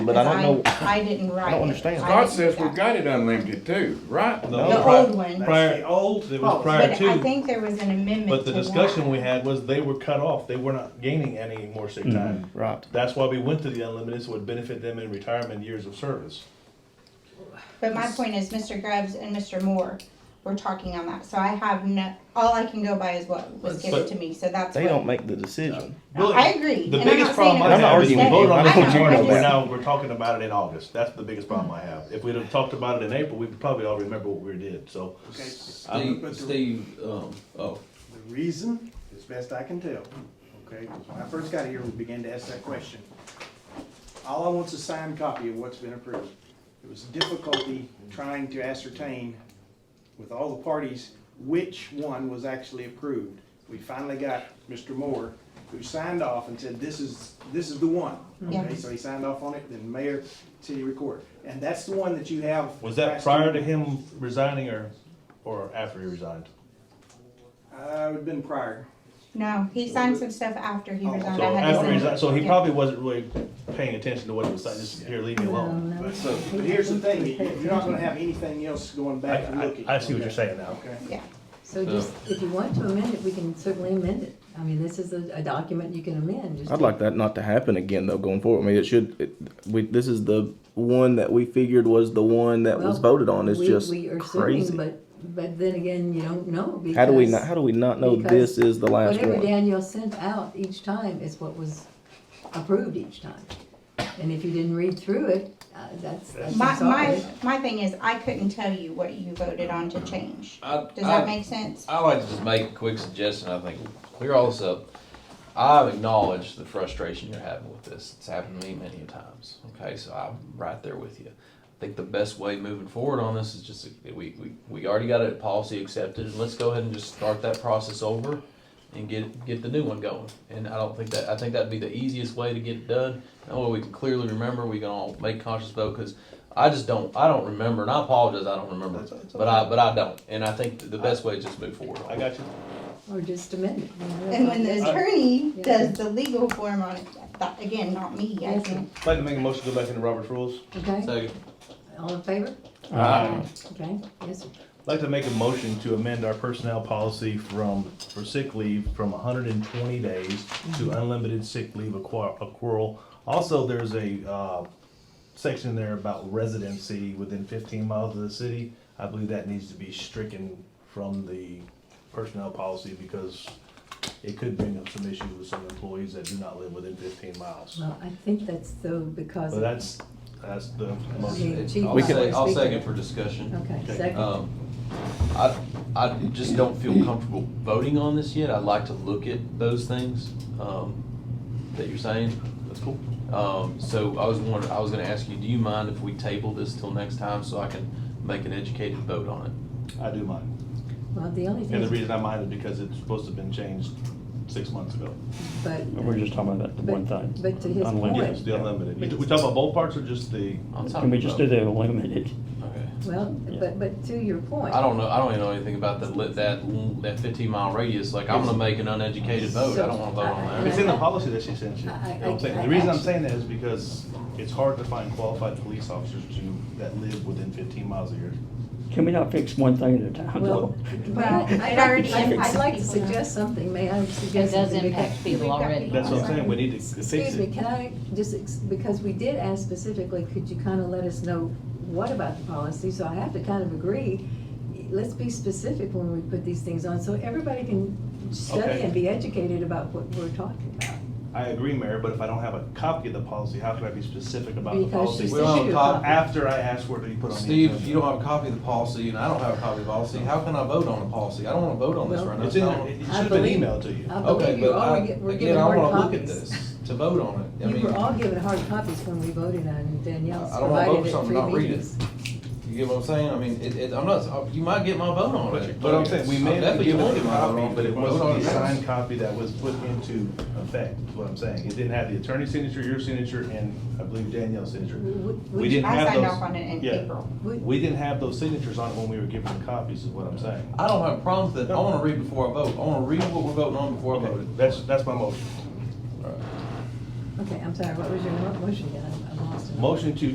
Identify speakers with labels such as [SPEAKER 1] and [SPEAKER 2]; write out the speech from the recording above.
[SPEAKER 1] But I don't know,
[SPEAKER 2] Because I I didn't write it.
[SPEAKER 1] understand.
[SPEAKER 2] I
[SPEAKER 3] God
[SPEAKER 2] didn't
[SPEAKER 3] says
[SPEAKER 2] do that.
[SPEAKER 3] we've got it unlimited too, right?
[SPEAKER 4] No.
[SPEAKER 2] The
[SPEAKER 4] pri-
[SPEAKER 2] old one.
[SPEAKER 4] Prior, the old, it was prior
[SPEAKER 2] But I
[SPEAKER 4] to,
[SPEAKER 2] think there was an amendment
[SPEAKER 4] but the
[SPEAKER 2] to
[SPEAKER 4] discussion
[SPEAKER 2] that.
[SPEAKER 4] we had was they were cut off, they were not gaining any more sick time.
[SPEAKER 1] right.
[SPEAKER 4] That's why we went to the unlimited, so it would benefit them in retirement years of service.
[SPEAKER 2] But my point is, Mr. Grubbs and Mr. Moore were talking on that, so I have no, all I can go by is what was given
[SPEAKER 4] But-
[SPEAKER 2] to me, so that's
[SPEAKER 1] They don't
[SPEAKER 2] what.
[SPEAKER 1] make the decision.
[SPEAKER 4] Really,
[SPEAKER 2] I agree,
[SPEAKER 4] The
[SPEAKER 2] and I'm
[SPEAKER 4] biggest
[SPEAKER 2] not saying
[SPEAKER 4] problem
[SPEAKER 2] it was
[SPEAKER 4] I
[SPEAKER 1] I'm not
[SPEAKER 4] have is we
[SPEAKER 1] arguing with
[SPEAKER 4] voted
[SPEAKER 1] you.
[SPEAKER 4] on
[SPEAKER 1] I
[SPEAKER 4] it
[SPEAKER 1] know,
[SPEAKER 4] in
[SPEAKER 1] I
[SPEAKER 4] June,
[SPEAKER 1] just-
[SPEAKER 4] we're now, we're talking about it in August, that's the biggest problem I have. If we'd have talked about it in April, we'd probably all remember what we did, so.
[SPEAKER 5] Okay,
[SPEAKER 4] I'm-
[SPEAKER 5] but
[SPEAKER 6] Steve,
[SPEAKER 5] the-
[SPEAKER 6] Steve, um, oh,
[SPEAKER 5] The reason, as best I can tell, okay, 'cause when I first got here, we began to ask that question. All I want's a signed copy of what's been approved. It was difficulty trying to ascertain with all the parties which one was actually approved. We finally got Mr. Moore, who signed off and said, this is, this is the one.
[SPEAKER 2] Yeah.
[SPEAKER 5] Okay, so he signed off on it, then mayor, city recorder. And that's the one that you have.
[SPEAKER 4] Was that
[SPEAKER 5] last
[SPEAKER 4] prior to
[SPEAKER 5] year.
[SPEAKER 4] him resigning or, or after he resigned?
[SPEAKER 5] Uh, it'd been prior.
[SPEAKER 2] No, he signed some stuff after he
[SPEAKER 5] Oh,
[SPEAKER 2] resigned.
[SPEAKER 4] So
[SPEAKER 2] I had to
[SPEAKER 4] after he
[SPEAKER 2] send it.
[SPEAKER 4] resigned, so he
[SPEAKER 2] Yeah.
[SPEAKER 4] probably wasn't really paying attention to what he was saying, just here, leave me alone.
[SPEAKER 5] But but here's the thing, you're not gonna have anything else going
[SPEAKER 4] I,
[SPEAKER 5] back and
[SPEAKER 4] I,
[SPEAKER 5] looking.
[SPEAKER 4] I see what you're saying now.
[SPEAKER 5] Okay.
[SPEAKER 2] Yeah,
[SPEAKER 7] So just, if you want to amend it, we can certainly amend it. I mean, this is a, a document you can amend. just-
[SPEAKER 1] I'd like that not to happen again though, going forward. I mean, it should, it, we, this is the one that we figured was the one that was
[SPEAKER 7] Well,
[SPEAKER 1] voted on. It's
[SPEAKER 7] we-
[SPEAKER 1] just
[SPEAKER 7] we are assuming,
[SPEAKER 1] crazy.
[SPEAKER 7] But, but then again, you don't know because.
[SPEAKER 1] How do we not, how do we not know
[SPEAKER 7] because
[SPEAKER 1] this is the last
[SPEAKER 7] Whatever
[SPEAKER 1] one?
[SPEAKER 7] Daniel sent out each time is what was approved each time. And if you didn't read through it, uh, that's, that's,
[SPEAKER 2] my,
[SPEAKER 7] I'm
[SPEAKER 2] my,
[SPEAKER 7] sorry.
[SPEAKER 2] my thing is, I couldn't tell you what you voted on to change.
[SPEAKER 6] I,
[SPEAKER 2] Does that
[SPEAKER 6] I,
[SPEAKER 2] make sense?
[SPEAKER 6] I like to just make a quick suggestion, I think, clear all this up. I acknowledge the frustration you're having with this, it's happened to me many a times, okay, so I'm right there with you. I think the best way moving forward on this is just, that we, we, we already got a policy accepted, and let's go ahead and just start that process over and get, get the new one going, and I don't think that, I think that'd be the easiest way to get it done. That way we can clearly remember, we can all make conscious vote, cause I just don't, I don't remember, and I apologize, I don't remember,
[SPEAKER 4] That's- that's
[SPEAKER 6] but I, but I don't, and I think the best way is just move forward.
[SPEAKER 4] I got you.
[SPEAKER 7] Or just amend it. you know, that's
[SPEAKER 2] And
[SPEAKER 7] all
[SPEAKER 2] when
[SPEAKER 7] it
[SPEAKER 2] the
[SPEAKER 7] is.
[SPEAKER 2] attorney
[SPEAKER 7] Yeah.
[SPEAKER 2] does the legal form on it, that, again, not me, I
[SPEAKER 7] Yes.
[SPEAKER 2] can,
[SPEAKER 4] I'd like to make a motion to go back into Robert's rules.
[SPEAKER 7] Okay,
[SPEAKER 6] Second.
[SPEAKER 7] all in favor?
[SPEAKER 6] Aye.
[SPEAKER 7] Okay, yes, sir.
[SPEAKER 4] I'd like to make a motion to amend our personnel policy from, for sick leave, from hundred and twenty days to unlimited sick leave acqua- accrual. Also, there's a, uh, section there about residency within fifteen miles of the city. I believe that needs to be stricken from the personnel policy because it could bring up some issues with some employees that do not live within fifteen miles.
[SPEAKER 7] Well, I think that's though because.
[SPEAKER 4] But that's, that's the motion.
[SPEAKER 7] Yeah, chief,
[SPEAKER 6] I'll
[SPEAKER 7] I
[SPEAKER 6] say,
[SPEAKER 7] was
[SPEAKER 6] I'll
[SPEAKER 7] thinking-
[SPEAKER 6] second for discussion.
[SPEAKER 7] Okay, second.
[SPEAKER 6] Um, I, I just don't feel comfortable voting on this yet. I'd like to look at those things, um, that you're saying. That's cool. Um, so I was wondering, I was gonna ask you, do you mind if we table this till next time so I can make an educated vote on it?
[SPEAKER 4] I do mine.
[SPEAKER 7] Well, the only
[SPEAKER 4] And the
[SPEAKER 7] thing,
[SPEAKER 4] reason I mind is because it's supposed to have been changed six months ago.
[SPEAKER 7] but,
[SPEAKER 8] We're just talking about that
[SPEAKER 7] But-
[SPEAKER 8] one thing.
[SPEAKER 7] but to his
[SPEAKER 8] Unlimited.
[SPEAKER 7] point-
[SPEAKER 4] Yes, the unlimited. You- We talk about both parts or just the,
[SPEAKER 6] I'll talk
[SPEAKER 8] Can we just do
[SPEAKER 6] about-
[SPEAKER 8] the unlimited?
[SPEAKER 6] Okay.
[SPEAKER 7] well, but, but to your point.
[SPEAKER 6] I don't know, I don't even know anything about that, li- that, that fifteen mile radius. Like, I'm gonna make an uneducated vote. I don't wanna vote on that.
[SPEAKER 4] it's in the policy that she sent you.
[SPEAKER 7] I- I-
[SPEAKER 4] You know what I'm saying?
[SPEAKER 7] I-
[SPEAKER 4] The reason I'm saying that is because it's hard to find qualified police officers to, that live within fifteen miles of here.
[SPEAKER 8] Can we not fix one thing at a time?
[SPEAKER 7] Well,
[SPEAKER 8] though?
[SPEAKER 7] but I-
[SPEAKER 2] It
[SPEAKER 7] I'd
[SPEAKER 2] already
[SPEAKER 7] like, I'd- I'd
[SPEAKER 2] impacts
[SPEAKER 7] like to
[SPEAKER 9] people now.
[SPEAKER 7] suggest something, may I suggest
[SPEAKER 9] It does
[SPEAKER 7] something? because-
[SPEAKER 9] impact people already.
[SPEAKER 4] That's what I'm saying, we need to fix
[SPEAKER 7] Excuse me,
[SPEAKER 4] it.
[SPEAKER 7] can I just, ex- because we did ask specifically, could you kind of let us know what about the policy? So I have to kind of agree, let's be specific when we put these things on, so everybody can study
[SPEAKER 4] Okay.
[SPEAKER 7] and be educated about what we're talking about.
[SPEAKER 4] I agree, Mayor, but if I don't have a copy of the policy, how can I be specific about the
[SPEAKER 7] Because
[SPEAKER 4] policy?
[SPEAKER 7] she's
[SPEAKER 6] Well,
[SPEAKER 7] issued a
[SPEAKER 6] Bob,
[SPEAKER 7] copy.
[SPEAKER 4] After I ask where to be put on the
[SPEAKER 6] Steve, if you
[SPEAKER 4] agenda.
[SPEAKER 6] don't have a copy of the policy and I don't have a copy of the policy, how can I vote on a policy? I don't wanna vote on this
[SPEAKER 7] Well,
[SPEAKER 6] right now.
[SPEAKER 4] It's in,
[SPEAKER 6] It's not-
[SPEAKER 4] there. it
[SPEAKER 7] I
[SPEAKER 4] should have been
[SPEAKER 7] believe-
[SPEAKER 4] emailed to you.
[SPEAKER 7] I
[SPEAKER 6] Okay,
[SPEAKER 7] believe you
[SPEAKER 6] but
[SPEAKER 7] all
[SPEAKER 6] I,
[SPEAKER 7] were gi- were
[SPEAKER 6] again,
[SPEAKER 7] given
[SPEAKER 6] I
[SPEAKER 7] hard
[SPEAKER 6] wanna look at
[SPEAKER 7] copies.
[SPEAKER 6] this to vote on it. I
[SPEAKER 7] We
[SPEAKER 6] mean,
[SPEAKER 7] were all given hard copies when we voted on Danielle's
[SPEAKER 6] I don't wanna
[SPEAKER 7] provided
[SPEAKER 6] vote
[SPEAKER 7] at
[SPEAKER 6] something, not
[SPEAKER 7] three
[SPEAKER 6] read it.
[SPEAKER 7] meetings.
[SPEAKER 6] you get what I'm saying? I mean, it, it, I'm not, you might get my vote on
[SPEAKER 4] But
[SPEAKER 6] it.
[SPEAKER 4] you- But I'm saying, we
[SPEAKER 6] I
[SPEAKER 4] may have
[SPEAKER 6] definitely
[SPEAKER 4] given
[SPEAKER 6] won't
[SPEAKER 4] a
[SPEAKER 6] get my vote on
[SPEAKER 4] copy, but it
[SPEAKER 6] Vote on
[SPEAKER 4] wasn't the
[SPEAKER 6] it.
[SPEAKER 4] signed copy that was put into effect, is what I'm saying. It didn't have the attorney's signature, your signature, and I believe Danielle's signature.
[SPEAKER 7] Would-
[SPEAKER 4] We
[SPEAKER 7] would-
[SPEAKER 4] didn't
[SPEAKER 2] I
[SPEAKER 4] have
[SPEAKER 2] signed
[SPEAKER 4] those.
[SPEAKER 2] off on it in
[SPEAKER 4] yeah.
[SPEAKER 2] April.
[SPEAKER 7] Would-
[SPEAKER 4] We didn't have those signatures on it when we were given the copies, is what I'm saying.
[SPEAKER 6] I don't have problems with that. I wanna read before I vote. I wanna read what we're voting on before I
[SPEAKER 4] Okay,
[SPEAKER 6] vote.
[SPEAKER 4] that's, that's my motion.
[SPEAKER 6] All right.
[SPEAKER 7] Okay, I'm sorry, what was your mo- motion, Dan? I'm- I'm Austin.
[SPEAKER 4] Motion to